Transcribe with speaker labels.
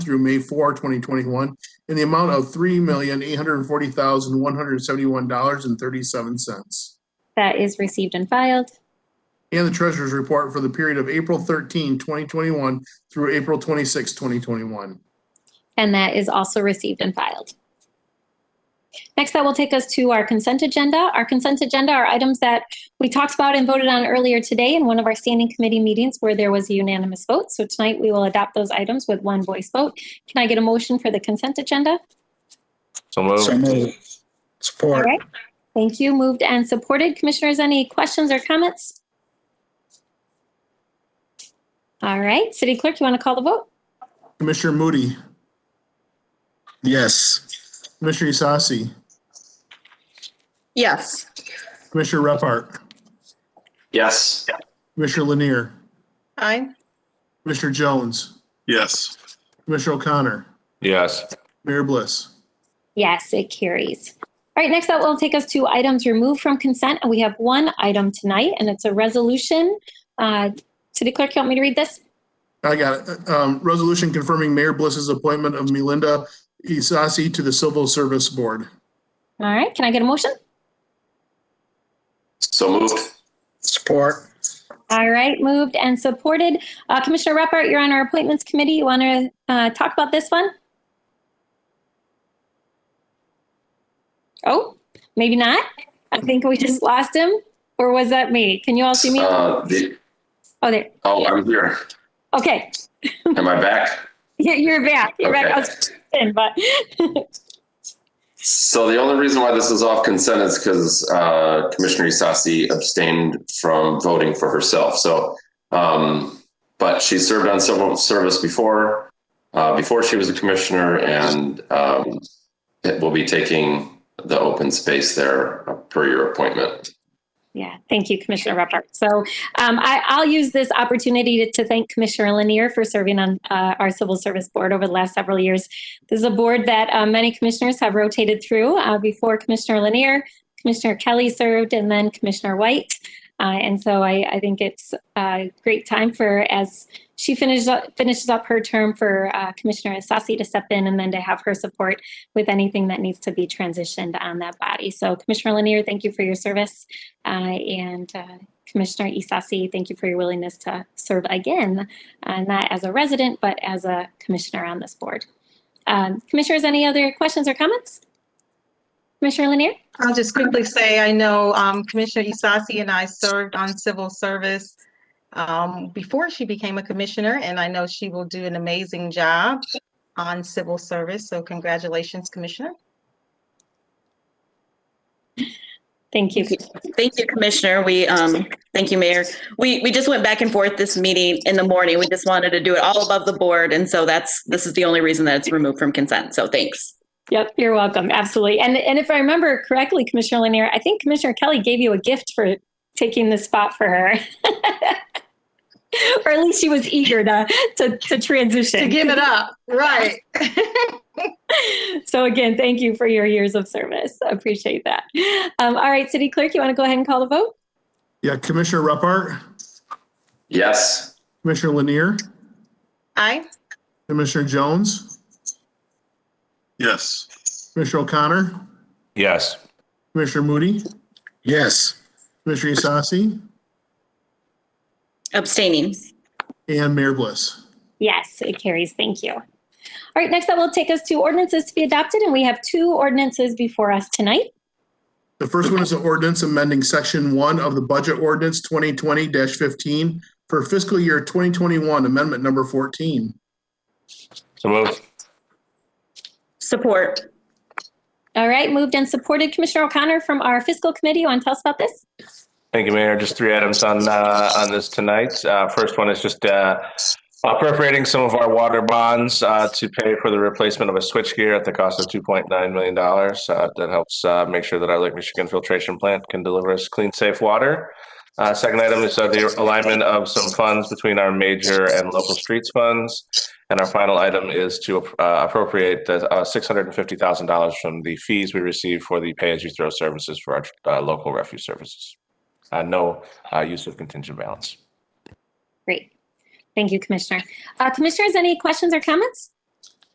Speaker 1: through May 4, 2021, in the amount of $3,840,171.37.
Speaker 2: That is received and filed.
Speaker 1: And the Treasurer's Report for the period of April 13, 2021 through April 26, 2021.
Speaker 2: And that is also received and filed. Next, that will take us to our consent agenda. Our consent agenda are items that we talked about and voted on earlier today in one of our standing committee meetings where there was a unanimous vote. So tonight, we will adopt those items with one voice vote. Can I get a motion for the consent agenda?
Speaker 3: So
Speaker 4: Oh.
Speaker 5: So
Speaker 3: moved.
Speaker 5: moved.
Speaker 2: All
Speaker 5: Support.
Speaker 2: right. Thank you. Moved and supported. Commissioners, any questions or comments? All right, City Clerk, you want to call the vote?
Speaker 1: Commissioner Moody,
Speaker 5: Yes.
Speaker 1: Commissioner Isasi,
Speaker 6: Yes.
Speaker 1: Commissioner Repart,
Speaker 3: Yes.
Speaker 1: Commissioner Lanier,
Speaker 6: Aye.
Speaker 1: Commissioner Jones,
Speaker 5: Yes.
Speaker 1: Commissioner O'Connor,
Speaker 3: Yes.
Speaker 1: Mayor Bliss.
Speaker 2: Yes, it carries. All right, next up will take us to items removed from consent, and we have one item tonight, and it's a resolution. Uh, City Clerk, you want me to read this?
Speaker 1: I got it. Um, resolution confirming Mayor Bliss's appointment of Melinda Isasi to the Civil Service Board.
Speaker 2: All right, can I get a motion?
Speaker 3: So moved.
Speaker 5: Support.
Speaker 2: All right, moved and supported. Uh, Commissioner Repart, you're on our appointments committee. You want to uh, talk about this one? Oh, maybe not. I think we just lost him, or was that me? Can you all see me? Oh,
Speaker 3: Uh, the-
Speaker 2: there.
Speaker 3: Oh, I'm here.
Speaker 2: Okay,
Speaker 3: Am I back?
Speaker 2: you're you're back. You're back. I
Speaker 3: Okay.
Speaker 2: was in, but
Speaker 3: So the only reason why this is off consent is because Commissioner Isasi abstained from voting for herself. So, um, but she served on civil service before, uh, before she was a commissioner and um, it will be taking the open space there per your appointment.
Speaker 2: Yeah, thank you, Commissioner Repart. So um, I, I'll use this opportunity to, to thank Commissioner Lanier for serving on uh, our Civil Service Board over the last several years. This is a board that uh, many commissioners have rotated through. Uh, before Commissioner Lanier, Commissioner Kelly served, and then Commissioner White. Uh, and so I, I think it's a great time for as she finishes up, finishes up her term for uh, Commissioner Sassi to step in, and then to have her support with anything that needs to be transitioned on that body. So Commissioner Lanier, thank you for your service. Uh, And uh, Commissioner Isasi, thank you for your willingness to serve again, uh, not as a resident, but as a commissioner on this board. Um, Commissioners, any other questions or comments? Commissioner Lanier?
Speaker 6: I'll just quickly say, I know um, Commissioner Isasi and I served on civil service um, before she became a commissioner, and I know she will do an amazing job on civil service. So congratulations, Commissioner.
Speaker 2: Thank you.
Speaker 7: Thank you, Commissioner. We, um, thank you, Mayor. We, we just went back and forth this meeting in the morning. We just wanted to do it all above the board. And so that's, this is the only reason that it's removed from consent. So thanks.
Speaker 2: Yep, you're welcome. Absolutely. And, and if I remember correctly, Commissioner Lanier, I think Commissioner Kelly gave you a gift for taking the spot for her. Or at least she was eager to, to, to transition.
Speaker 6: To give it up, right.
Speaker 2: So again, thank you for your years of service. I Appreciate that. Um, all right, City Clerk, you want to go ahead and call the vote?
Speaker 1: Yeah, Commissioner Repart,
Speaker 3: Yes.
Speaker 1: Commissioner Lanier,
Speaker 6: Aye.
Speaker 1: Commissioner Jones,
Speaker 5: Yes.
Speaker 1: Commissioner O'Connor,
Speaker 3: Yes.
Speaker 1: Commissioner Moody,
Speaker 5: Yes.
Speaker 1: Commissioner Isasi,
Speaker 7: Abstaining.
Speaker 1: and Mayor Bliss.
Speaker 2: Yes, it carries. Thank you. All right, next that will take us to ordinances to be adopted, and we have two ordinances before us tonight.
Speaker 1: The first one is an ordinance amending section one of the budget ordinance twenty twenty fifteen for fiscal year twenty twenty-one, amendment number fourteen.
Speaker 3: So moved.
Speaker 7: Support.
Speaker 2: All right, moved and supported. Commissioner O'Connor from our fiscal committee, you want to tell us about this?
Speaker 4: Thank you, Mayor. Just three items on, uh, on this tonight. Uh, first one is just, uh, appropriating some of our water bonds, uh, to pay for the replacement of a switchgear at the cost of two point nine million dollars. Uh, that helps, uh, make sure that our Lake Michigan filtration plant can deliver us clean, safe water. Uh, second item is uh, the alignment of some funds between our major and local streets funds. And our final item is to, uh, appropriate the, uh, six hundred and fifty thousand dollars from the fees we receive for the pay-as-you-throw services for our, uh, local refuse services uh, no uh, use of contingent balance.
Speaker 2: Great. Thank you, Commissioner. Uh, commissioners, any questions or comments?